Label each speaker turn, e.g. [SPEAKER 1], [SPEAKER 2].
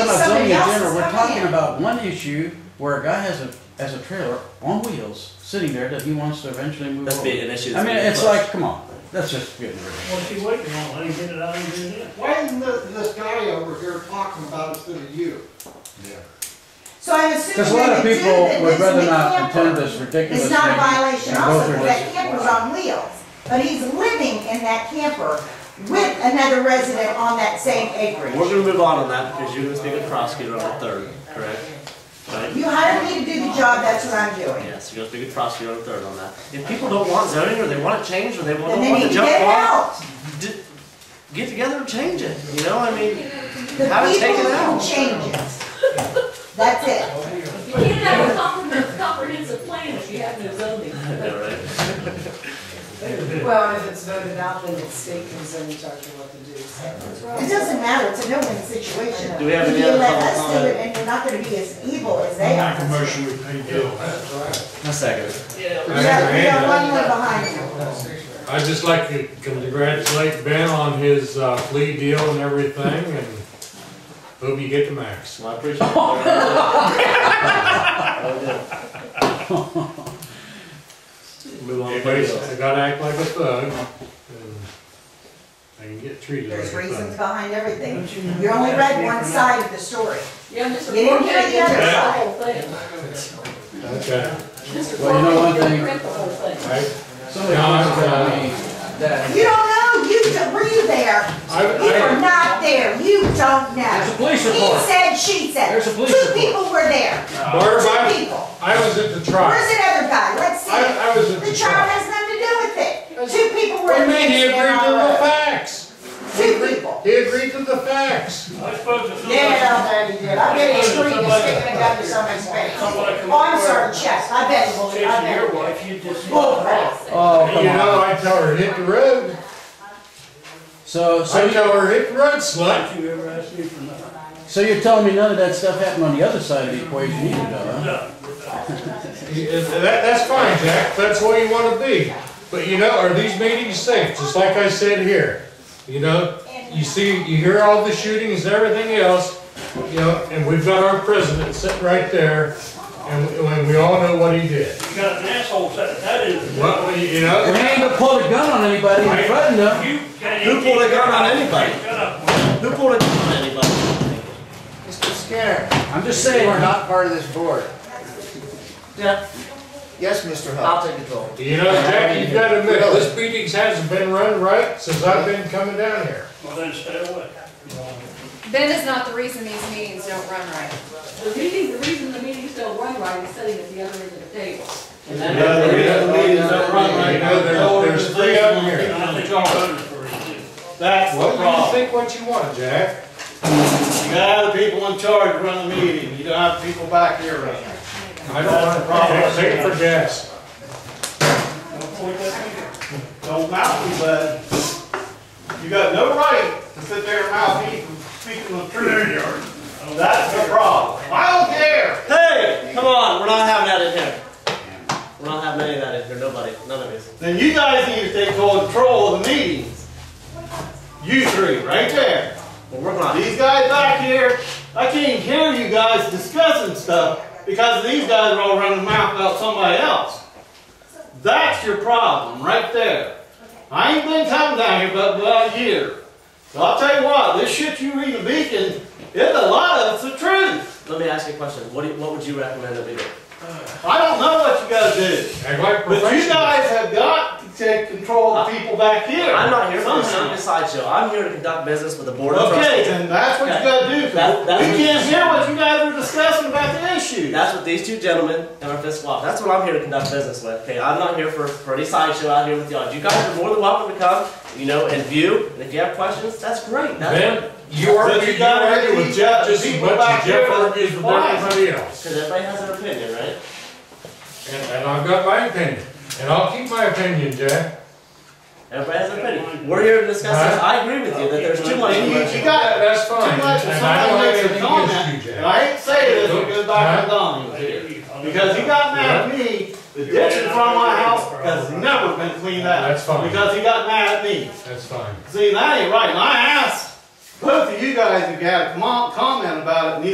[SPEAKER 1] not talking about one issue where a guy has a, has a trailer on wheels, sitting there that he wants to eventually move
[SPEAKER 2] That's
[SPEAKER 1] over.
[SPEAKER 2] being an issue
[SPEAKER 1] I
[SPEAKER 2] that's
[SPEAKER 1] mean,
[SPEAKER 2] being
[SPEAKER 1] it's
[SPEAKER 2] pushed.
[SPEAKER 1] like, come on, that's just getting rid of
[SPEAKER 3] What's he waiting on? Let him get it out and get it in.
[SPEAKER 4] Why isn't this, this guy over here talking about instead of you?
[SPEAKER 5] So I'm
[SPEAKER 1] it.
[SPEAKER 5] assuming
[SPEAKER 1] Cause a lot of
[SPEAKER 5] they do
[SPEAKER 1] people
[SPEAKER 5] that
[SPEAKER 1] would
[SPEAKER 5] this
[SPEAKER 1] rather
[SPEAKER 5] is a
[SPEAKER 1] not contend
[SPEAKER 5] camper.
[SPEAKER 1] this ridiculous
[SPEAKER 5] It's not
[SPEAKER 1] thing.
[SPEAKER 5] a violation
[SPEAKER 1] and go
[SPEAKER 5] also,
[SPEAKER 1] through
[SPEAKER 5] because that
[SPEAKER 1] this.
[SPEAKER 5] camper's on wheels, but he's living in that camper with another resident on that same
[SPEAKER 2] We're
[SPEAKER 5] acreage.
[SPEAKER 2] gonna move on on that because you're gonna speak with the prosecutor on the third, correct? Right?
[SPEAKER 5] You hired me to do the job, that's what I'm doing.
[SPEAKER 2] Yes, you're gonna speak with the prosecutor on the third on that. If people don't want zoning or they want it changed or they want,
[SPEAKER 5] Then
[SPEAKER 2] don't
[SPEAKER 5] they
[SPEAKER 2] want
[SPEAKER 5] need
[SPEAKER 2] the
[SPEAKER 5] to
[SPEAKER 2] junk
[SPEAKER 5] get it
[SPEAKER 2] law,
[SPEAKER 5] out.
[SPEAKER 2] d- get together and change it, you know, I mean,
[SPEAKER 5] The
[SPEAKER 2] have it
[SPEAKER 5] people
[SPEAKER 2] taken
[SPEAKER 5] can
[SPEAKER 2] out.
[SPEAKER 5] change it. That's it.
[SPEAKER 6] You can't have a comprehensive, comprehensive plan if you have no zoning.
[SPEAKER 2] Yeah, right.
[SPEAKER 7] Well, if it's voted out, then it's state can send charge of what to do, so.
[SPEAKER 5] It doesn't matter, it's a no-win situation.
[SPEAKER 2] Do we have
[SPEAKER 5] If
[SPEAKER 2] any
[SPEAKER 5] you
[SPEAKER 2] other
[SPEAKER 5] let us
[SPEAKER 2] public
[SPEAKER 5] do
[SPEAKER 2] comment?
[SPEAKER 5] it, And you're not gonna be as evil as they are.
[SPEAKER 3] Make a motion, we pay Gil.
[SPEAKER 2] A second.
[SPEAKER 5] We got, we got one more behind you.
[SPEAKER 8] I'd just like to congratulate Ben on his uh, plea deal and everything, and hope you get the max.
[SPEAKER 2] Well, I appreciate it. Oh, yeah. Move on to
[SPEAKER 8] Everybody's
[SPEAKER 2] the
[SPEAKER 8] gotta act like a thug, and they can get treated like a
[SPEAKER 5] There's reasons
[SPEAKER 8] thug.
[SPEAKER 5] behind everything. You only read one side of the story.
[SPEAKER 6] Yeah, Mr.
[SPEAKER 5] You didn't hear the
[SPEAKER 6] Forte,
[SPEAKER 5] other
[SPEAKER 6] the
[SPEAKER 5] side.
[SPEAKER 6] whole thing.
[SPEAKER 8] Okay,
[SPEAKER 6] Mr.
[SPEAKER 1] Well, you know one
[SPEAKER 6] Forte didn't
[SPEAKER 1] thing-
[SPEAKER 6] print the whole thing.
[SPEAKER 8] I,
[SPEAKER 1] Somebody
[SPEAKER 8] No,
[SPEAKER 1] once
[SPEAKER 8] I'm,
[SPEAKER 1] told
[SPEAKER 8] uh,
[SPEAKER 1] me that,
[SPEAKER 5] You don't know, you, d- were you there? You were
[SPEAKER 8] I,
[SPEAKER 5] not there, you don't
[SPEAKER 1] there's
[SPEAKER 5] know.
[SPEAKER 1] a police
[SPEAKER 5] He
[SPEAKER 1] report.
[SPEAKER 5] said, she said.
[SPEAKER 1] There's a police
[SPEAKER 5] Two
[SPEAKER 1] report.
[SPEAKER 5] people were there,
[SPEAKER 8] I, Barb,
[SPEAKER 5] two
[SPEAKER 8] I,
[SPEAKER 5] people.
[SPEAKER 8] I was at the
[SPEAKER 5] Where's
[SPEAKER 8] trial.
[SPEAKER 5] that other guy? Let's see it.
[SPEAKER 8] I, I was
[SPEAKER 5] The
[SPEAKER 8] at the
[SPEAKER 5] child
[SPEAKER 8] trial.
[SPEAKER 5] has nothing to do with it. Two people were in
[SPEAKER 8] What do you
[SPEAKER 5] the
[SPEAKER 8] mean, he agreed
[SPEAKER 5] incident
[SPEAKER 8] to
[SPEAKER 5] on
[SPEAKER 8] the
[SPEAKER 5] the road.
[SPEAKER 8] facts?
[SPEAKER 5] Two people.
[SPEAKER 8] He agreed to the facts.
[SPEAKER 3] I suppose if
[SPEAKER 5] Yeah,
[SPEAKER 3] somebody,
[SPEAKER 5] I bet he did. I bet he agreed to sticking a gun to somebody's face.
[SPEAKER 3] somebody come.
[SPEAKER 5] Oh, I'm sorry, Chess, I bet, you would. I
[SPEAKER 3] Chasing your
[SPEAKER 5] bet.
[SPEAKER 3] wife, you just.
[SPEAKER 5] Bullcrap.
[SPEAKER 1] Oh,
[SPEAKER 8] You
[SPEAKER 1] come on.
[SPEAKER 8] know, I tell her, hit the road.
[SPEAKER 1] So, so
[SPEAKER 8] I
[SPEAKER 1] you,
[SPEAKER 8] tell her, hit the road, slut.
[SPEAKER 3] Don't you ever ask me for nothing.
[SPEAKER 1] so you're telling me none of that stuff happened on the other side of the equation either, though, huh?
[SPEAKER 3] No,
[SPEAKER 8] That, that's fine, Jack, that's where you wanna be. But you know, are these meetings safe, just like I said here? You know, you see, you hear all the shootings and everything else, you know, and we've got our president sitting right there, and, we- and we all know what he did.
[SPEAKER 3] you got an asshole set, that is.
[SPEAKER 8] Well, you know,
[SPEAKER 1] We ain't gonna pull a gun on anybody and threaten them.
[SPEAKER 3] You can't.
[SPEAKER 2] Who pulled a gun on anybody?
[SPEAKER 3] Shut up.
[SPEAKER 2] Who pulled a gun on anybody?
[SPEAKER 9] Mr. Skinner,
[SPEAKER 1] I'm just
[SPEAKER 9] you are
[SPEAKER 1] saying,
[SPEAKER 9] not part of this board.
[SPEAKER 2] Yeah.
[SPEAKER 9] Yes, Mr.
[SPEAKER 2] I'll
[SPEAKER 9] Huff.
[SPEAKER 2] take the goal.
[SPEAKER 8] you know, Jack, you've gotta admit, this meetings hasn't been run right since I've been coming down here.
[SPEAKER 3] Well, then stay away.
[SPEAKER 10] Ben is not the reason these meetings don't run right.
[SPEAKER 6] The meeting, the reason the meetings don't run right is sitting at the other end of the table.
[SPEAKER 8] You know, there's, there's three of them here.
[SPEAKER 3] I think I voted for it too.
[SPEAKER 11] That's the
[SPEAKER 8] Well, you
[SPEAKER 11] problem.
[SPEAKER 8] think what you want, Jack.
[SPEAKER 11] You gotta have the people in charge run the meeting. You don't have people back here running.
[SPEAKER 8] I don't want to problem. Pay for gas.
[SPEAKER 3] Don't point that finger.
[SPEAKER 11] Don't mouth me, bud. You got no right to sit there and mouth me from speaking the truth. There you are. That's the problem. I don't care.
[SPEAKER 2] Hey, come on, we're not having that in here. We're not having any of that in here, nobody, none of us.
[SPEAKER 11] Then you guys need to take control of the meetings. You three, right there.
[SPEAKER 2] We're working on it.
[SPEAKER 11] These guys back here, I can't hear you guys discussing stuff because these guys are all running their mouth about somebody else. That's your problem right there. I ain't been coming down here but about a year. So I'll tell you what, this shit you read in the Beacon, it's a lot of it's the truth.
[SPEAKER 2] Let me ask you a question, what do you, what would you recommend that we do?
[SPEAKER 11] I don't know what you guys do,
[SPEAKER 8] Act like
[SPEAKER 11] but you
[SPEAKER 8] professionals.
[SPEAKER 11] guys have got to take control of the people back here.
[SPEAKER 2] I'm not here for this
[SPEAKER 11] Somehow.
[SPEAKER 2] stupid sideshow, I'm here to conduct business with the board of
[SPEAKER 11] Okay,
[SPEAKER 2] trustees.
[SPEAKER 11] then that's what you gotta do, 'cause
[SPEAKER 2] That- that's what-
[SPEAKER 11] we can't hear what you guys are discussing about the issue.
[SPEAKER 2] That's what these two gentlemen and our fiscal officer, that's what I'm here to conduct business with, okay? I'm not here for, for any sideshow out here with y'all. You guys are more than welcome to come, you know, and view, and if you have questions, that's great, that's,
[SPEAKER 8] Ben, you
[SPEAKER 11] But
[SPEAKER 8] argue,
[SPEAKER 11] you
[SPEAKER 8] you
[SPEAKER 11] gotta
[SPEAKER 8] argue
[SPEAKER 11] keep
[SPEAKER 8] with Jeff just as
[SPEAKER 11] people
[SPEAKER 8] much
[SPEAKER 11] back
[SPEAKER 8] as Jeff
[SPEAKER 11] here
[SPEAKER 8] argues with
[SPEAKER 11] quiet.
[SPEAKER 8] everybody else.
[SPEAKER 2] cause everybody has an opinion, right?
[SPEAKER 8] And, and I've got my opinion, and I'll keep my opinion, Jack.
[SPEAKER 2] Everybody has an opinion. We're here to discuss this, I agree with you that there's too much.
[SPEAKER 11] And you, you
[SPEAKER 8] That-
[SPEAKER 11] got
[SPEAKER 8] That's
[SPEAKER 11] too
[SPEAKER 8] fine, and
[SPEAKER 11] much of
[SPEAKER 8] I
[SPEAKER 11] somebody
[SPEAKER 8] don't have
[SPEAKER 11] makes a
[SPEAKER 8] anything
[SPEAKER 11] comment,
[SPEAKER 8] against you,
[SPEAKER 11] and
[SPEAKER 8] Jack.
[SPEAKER 11] I ain't saying this because back to Donnie
[SPEAKER 3] There
[SPEAKER 11] here.
[SPEAKER 3] you go.
[SPEAKER 11] Because he got mad at me, the ditch in front of my house has never been cleaned out.
[SPEAKER 8] That's fine.
[SPEAKER 11] Because he got mad at me.
[SPEAKER 8] That's fine.
[SPEAKER 11] See, that ain't right, and I asked both of you guys if you had a com- comment about it, and